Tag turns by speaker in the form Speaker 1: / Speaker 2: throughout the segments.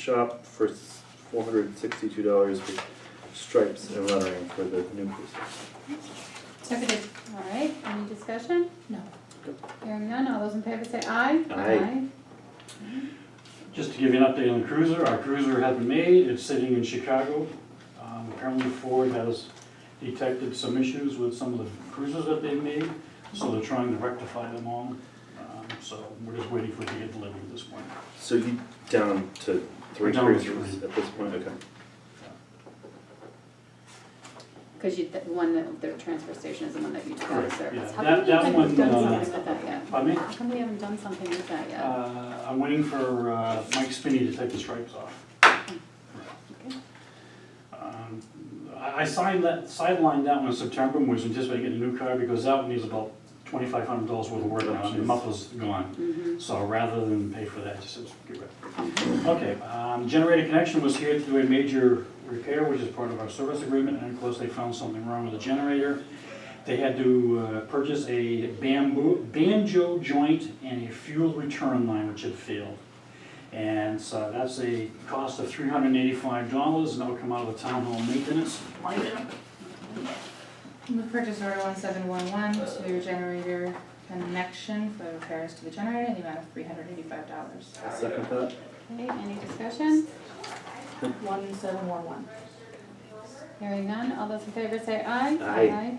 Speaker 1: shop for four hundred and sixty-two dollars with stripes and lettering for the new police.
Speaker 2: Seconded.
Speaker 3: All right, any discussion?
Speaker 2: No.
Speaker 3: Hearing none, all those in favor say aye.
Speaker 1: Aye.
Speaker 4: Just to give you an update on the cruiser, our cruiser has been made, it's sitting in Chicago. Um, Apparently Ford has detected some issues with some of the cruisers that they've made, so they're trying to rectify them all. Um, So we're just waiting for it to get delivered at this point.
Speaker 1: So you down to three
Speaker 4: We're down to
Speaker 1: cruisers
Speaker 4: three.
Speaker 1: at this point, okay.
Speaker 3: Because you, the one that, the transfer station is the one that you took out of
Speaker 4: Correct,
Speaker 3: service.
Speaker 4: yeah.
Speaker 3: How
Speaker 4: That-
Speaker 3: come we
Speaker 4: that
Speaker 3: haven't
Speaker 4: one,
Speaker 3: done
Speaker 4: uh,
Speaker 3: something with that yet?
Speaker 4: Pardon me?
Speaker 3: How come we haven't done something with that yet?
Speaker 4: Uh, I'm waiting for uh, Mike Spinney to take the stripes off.
Speaker 3: Okay.
Speaker 4: Um, I I signed that, sidelined that one in September, and was anticipating getting a new car because that one needs about twenty-five hundred dollars worth of work on it, the muffler's gone.
Speaker 3: Mhm.
Speaker 4: So rather than pay for that, just let's get rid of it. Okay, um, generator connection was here to do a major repair, which is part of our service agreement, and of course, they found something wrong with the generator. They had to uh, purchase a bamboo, banjo joint and a fuel return line, which had failed. And so that's a cost of three hundred and eighty-five dollars, and that'll come out of the town hall maintenance line item.
Speaker 2: Move purchase order one seven one one to generator connection for repairs to the generator in the amount of three hundred eighty-five dollars.
Speaker 1: I'll second that.
Speaker 3: Okay, any discussion?
Speaker 2: One seven one one.
Speaker 3: Hearing none, all those in favor say aye.
Speaker 1: Aye.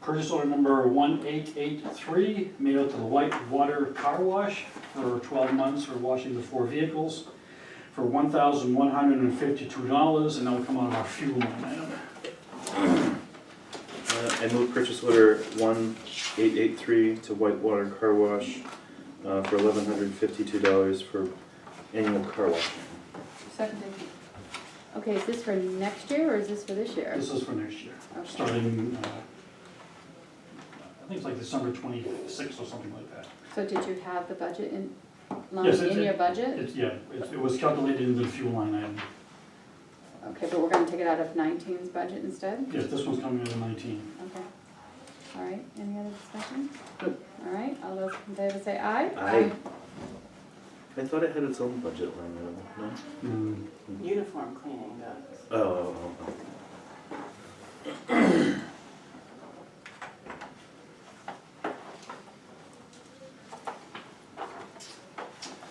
Speaker 4: Purchase order number one eight eight three, made out to the White Water Car Wash for twelve months for washing the four vehicles for one thousand one hundred and fifty-two dollars, and that'll come out of our fuel line item.
Speaker 1: Uh, I move purchase order one eight eight three to Whitewater Car Wash uh, for eleven hundred fifty-two dollars for annual car wash.
Speaker 2: Seconded.
Speaker 3: Okay, is this for next year or is this for this year?
Speaker 4: This is for next year,
Speaker 3: Okay.
Speaker 4: starting, uh, I think it's like December twenty-sixth or something like that.
Speaker 3: So did you have the budget in, line
Speaker 4: Yes, it's-
Speaker 3: in your budget?
Speaker 4: It's, yeah, it it was calculated in the fuel line item.
Speaker 3: Okay, but we're gonna take it out of 19's budget instead?
Speaker 4: Yes, this one's coming out of nineteen.
Speaker 3: Okay. All right, any other discussion?
Speaker 4: Nope.
Speaker 3: All right, all those in favor say aye.
Speaker 1: Aye. I thought it had its own budget line item, no?
Speaker 4: Mm,
Speaker 5: Uniform cleaning does.
Speaker 1: Oh, oh, oh, oh.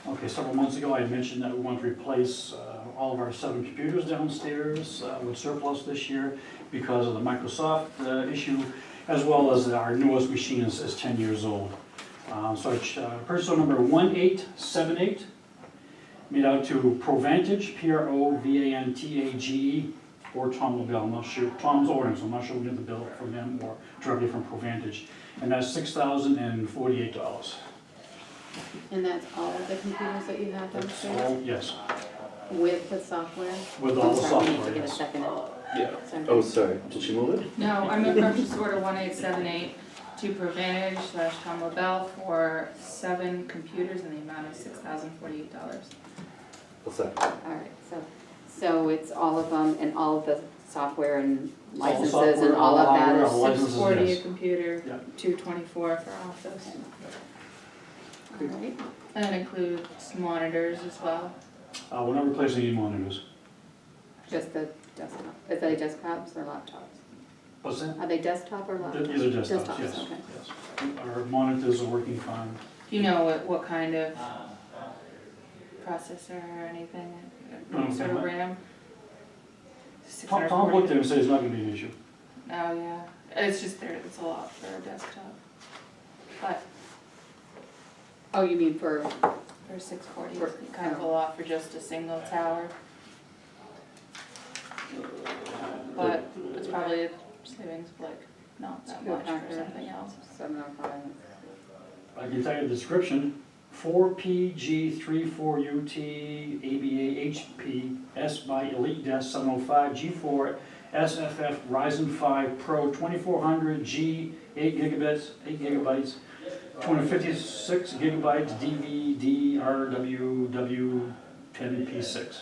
Speaker 4: Okay, several months ago, I had mentioned that we want to replace uh, all of our seven computers downstairs uh, with surplus this year because of the Microsoft uh, issue, as well as our newest machine is is 10 years old. Uh, So it's uh, purchase order number 1878, made out to Provantage, P-R-O-V-A-N-T-A-G-E, E, or Tom LaBelle, I'm not sure, Tom's ordering, so I'm not sure we get the bill from him or directly from Provantage. And that's $6,048.
Speaker 3: And that's all of the computers that you have
Speaker 4: That's
Speaker 3: downstairs
Speaker 4: all, yes,
Speaker 3: with the software?
Speaker 4: with all the
Speaker 3: I'm
Speaker 4: software.
Speaker 3: sorry, we need to get a
Speaker 4: yes.
Speaker 3: second.
Speaker 1: Yeah.
Speaker 3: Sorry.
Speaker 1: Oh, sorry, did she move it?
Speaker 2: No, I move purchase order one eight seven eight to Provantage slash Tom LaBelle for seven computers in the amount of six thousand forty-eight dollars.
Speaker 1: I'll second.
Speaker 3: All right, so, so it's all of them and all of the software and
Speaker 4: All the
Speaker 3: licenses and
Speaker 4: software,
Speaker 3: all of that
Speaker 4: hardware,
Speaker 3: is-
Speaker 4: all licenses,
Speaker 2: Six forty a
Speaker 4: yes. Yeah.
Speaker 2: computer, two twenty-four for office.
Speaker 3: All right,
Speaker 2: And that includes monitors as well.
Speaker 4: Uh, we're not replacing any monitors.
Speaker 3: just the desktop, is they desktops or laptops?
Speaker 4: What's that?
Speaker 3: Are they desktop or laptops?
Speaker 4: These are desktops, yes,
Speaker 3: okay.
Speaker 4: yes. Our monitors are working fine.
Speaker 2: Do you know what, what kind of processor or anything,
Speaker 4: No,
Speaker 2: sort of
Speaker 4: but-
Speaker 2: RAM?
Speaker 4: Tom, Tom looked
Speaker 2: 640.
Speaker 4: at him and said it's not gonna be an issue.
Speaker 2: Oh, yeah, it's just there, it's a lot for a desktop, but
Speaker 3: Oh, you mean for,
Speaker 2: for six forty,
Speaker 3: For-
Speaker 2: it's kind of a lot for just a single tower. But it's probably a savings of like not that much for something else.
Speaker 3: seven oh five?
Speaker 4: I can tell you the description, four PG three four UT ABA HP S by Elite Desk seven oh five G four SFF Ryzen five Pro twenty-four hundred G eight gigabits, eight gigabytes, two hundred fifty-six gigabytes DVD RWW ten P six.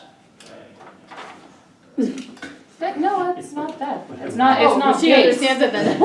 Speaker 2: That, no, it's not that, it's not, it's
Speaker 3: Oh,
Speaker 2: not
Speaker 3: she
Speaker 2: base.
Speaker 3: understands it then.